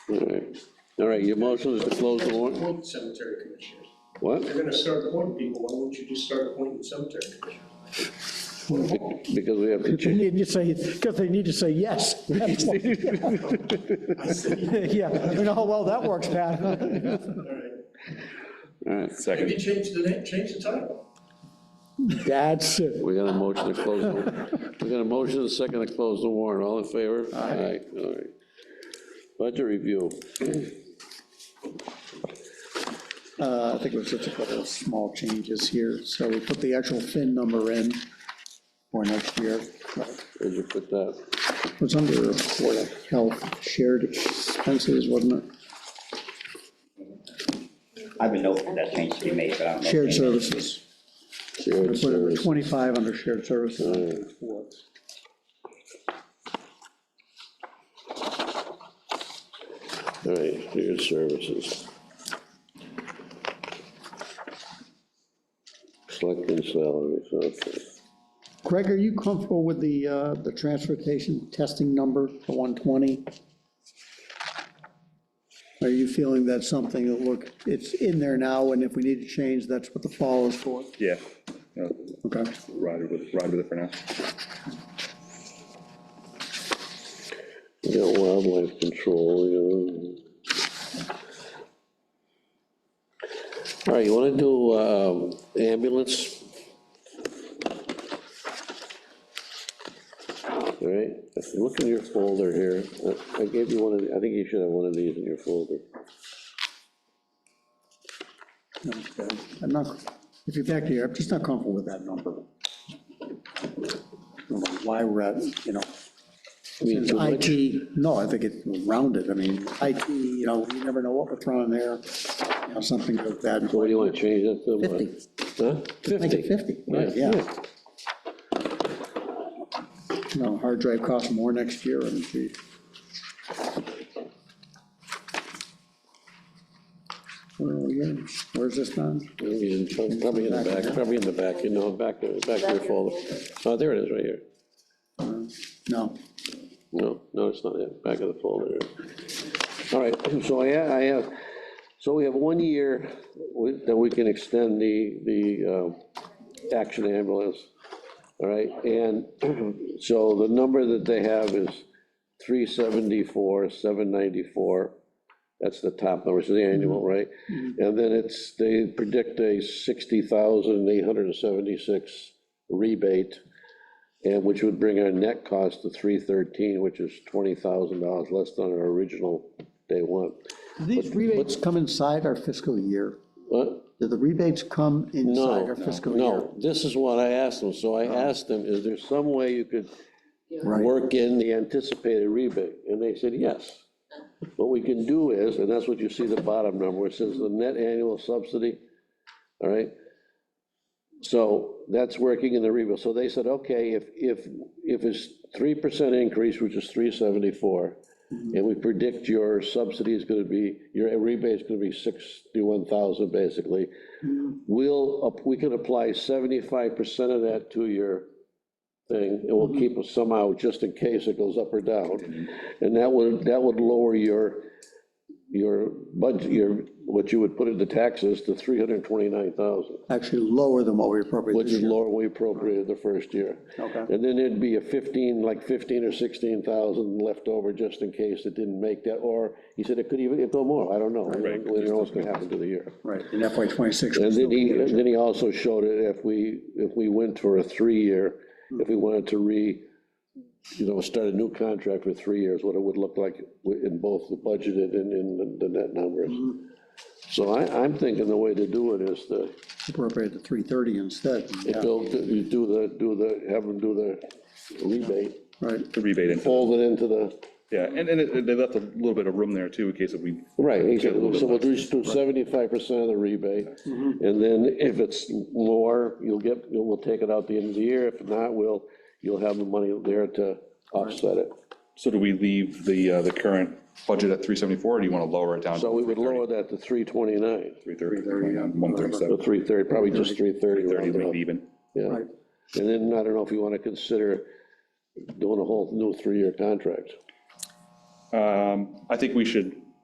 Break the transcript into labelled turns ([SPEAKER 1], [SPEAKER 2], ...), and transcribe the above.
[SPEAKER 1] All right, all right, your motion is to close the warrant,
[SPEAKER 2] Appoint cemetery commissioners.
[SPEAKER 1] what?
[SPEAKER 2] They're gonna start appointing people, why wouldn't you just start appointing cemetery commissioners?
[SPEAKER 1] Because we have to
[SPEAKER 3] You
[SPEAKER 1] change.
[SPEAKER 3] need to say, because they need to say yes. That's why. Yeah, you know, oh, well, that works, Pat.
[SPEAKER 2] All right,
[SPEAKER 1] All right,
[SPEAKER 2] maybe
[SPEAKER 4] Second.
[SPEAKER 2] change the name, change the title.
[SPEAKER 3] That's it.
[SPEAKER 1] we got a motion to close, the- we got a motion and a second to close the warrant, all in favor? Aye. All right. Budget review,
[SPEAKER 3] Uh, I think it was just a couple of small changes here. So we put the actual fin number in for next year.
[SPEAKER 1] where'd you put that?
[SPEAKER 3] It was under Board of Health shared expenses, wasn't it?
[SPEAKER 5] I would note that change to be made, but I don't know.
[SPEAKER 3] Shared services.
[SPEAKER 1] Shared
[SPEAKER 3] Put it at
[SPEAKER 1] service.
[SPEAKER 3] 25 under shared services.
[SPEAKER 1] All right, shared services. Selecting salaries, okay.
[SPEAKER 3] Greg, are you comfortable with the, uh, the transportation testing number, the 120? Are you feeling that's something that, look, it's in there now, and if we need to change, that's what the fall is for?
[SPEAKER 4] Yeah. No,
[SPEAKER 3] Okay.
[SPEAKER 4] Ride with, ride with it for now.
[SPEAKER 1] We got wildlife control, you know. All right, you wanna do um, ambulance? All right, if you look in your folder here, I- I gave you one of, the- I think you should have one of these in your folder.
[SPEAKER 3] I'm not, if you're back here, I'm just not comfortable with that number. I don't know Why we're at, you know,
[SPEAKER 1] I mean,
[SPEAKER 3] it's
[SPEAKER 1] too much?
[SPEAKER 3] IT, no, I think it's rounded, I mean, IT, you know, you never know what we're throwing there, you know, something like that.
[SPEAKER 1] What do you wanna change that to? what?
[SPEAKER 3] 50.
[SPEAKER 1] Huh?
[SPEAKER 3] Make it 50, right, yeah. You know, hard drive costs more next year, and the- Where are we at? Where's this done?
[SPEAKER 1] He's in- Probably in the back, probably in the back, you know, back, back of your folder. Oh, there it is, right here.
[SPEAKER 3] Uh, No,
[SPEAKER 1] No, no, it's not it, back of the folder. All right, so I, ha- I have, so we have one year with- that we can extend the, the uh, action ambulance. All right, and so the number that they have is three seventy-four, seven ninety-four. That's the top number, so the annual, right? And then it's, they predict a sixty thousand, eight hundred and seventy-six rebate. And which would bring our net cost to three thirteen, which is twenty thousand dollars less than our original day one.
[SPEAKER 3] these rebates come inside our fiscal year.
[SPEAKER 1] What?
[SPEAKER 3] Do the rebates come inside
[SPEAKER 1] No,
[SPEAKER 3] our fiscal year? Oh.
[SPEAKER 1] no, this is what I asked them, so I asked them, is there some way you could
[SPEAKER 3] Right,
[SPEAKER 1] work in the anticipated rebate? And they said, yes. What we can do is, and that's what you see the bottom number, where it says the net annual subsidy, all right? So that's working in the rebate, so they said, okay, if, if, if it's three percent increase, which is three seventy-four,
[SPEAKER 3] Mm-hmm.
[SPEAKER 1] and we predict your subsidy is gonna be, your rebate is gonna be sixty-one thousand, basically, we'll, up- we can apply seventy-five percent of that to your thing, and we'll keep it somehow, just in case it goes up or down. And that would, that would lower your, your budget, your, what you would put into taxes to three hundred and twenty-nine thousand,
[SPEAKER 3] actually lower than what we appropriate
[SPEAKER 1] which
[SPEAKER 3] this
[SPEAKER 1] is
[SPEAKER 3] year.
[SPEAKER 1] lower than we appropriated the first year.
[SPEAKER 3] Okay.
[SPEAKER 1] And then there'd be a fifteen, like fifteen or sixteen thousand left over, just in case it didn't make that, or, he said it could even, it'd go more, I don't know.
[SPEAKER 4] Right.
[SPEAKER 1] We don't know what's gonna happen to the year.
[SPEAKER 3] Right, in FY '26.
[SPEAKER 1] And then he, then he also showed it, if we, if we went for a three-year, if we wanted to re, you know, start a new contract for three years, what it would look like in both the budgeted and in the- the net numbers. So I, I'm thinking the way to do it is to,
[SPEAKER 3] Appropriate the 330 instead,
[SPEAKER 1] if
[SPEAKER 3] yeah,
[SPEAKER 1] they'll, you do the, do the, have them do the rebate,
[SPEAKER 3] right.
[SPEAKER 4] The rebate in.
[SPEAKER 1] fold it into the,
[SPEAKER 4] Yeah, and, and it- they left a little bit of room there too, in case if we.
[SPEAKER 1] right, he
[SPEAKER 4] get
[SPEAKER 1] said,
[SPEAKER 4] a little bit Mm-hmm.
[SPEAKER 1] so we'll
[SPEAKER 4] less.
[SPEAKER 1] do seventy-five percent of the rebate. And then if it's more, you'll get, we'll take it out the end of the year, if not, we'll, you'll have the money there to offset it.
[SPEAKER 4] So do we leave the, uh, the current budget at three seventy-four, or do you want to lower it down?
[SPEAKER 1] So we would lower that to three twenty-nine,
[SPEAKER 4] Three thirty, one
[SPEAKER 1] or
[SPEAKER 4] thirty-seven,
[SPEAKER 1] three thirty, probably just three thirty.
[SPEAKER 4] thirty, leave it even.
[SPEAKER 1] Yeah,
[SPEAKER 3] Right.
[SPEAKER 1] and then I don't know if you want to consider doing a whole new three-year contract.
[SPEAKER 4] Um, I think we should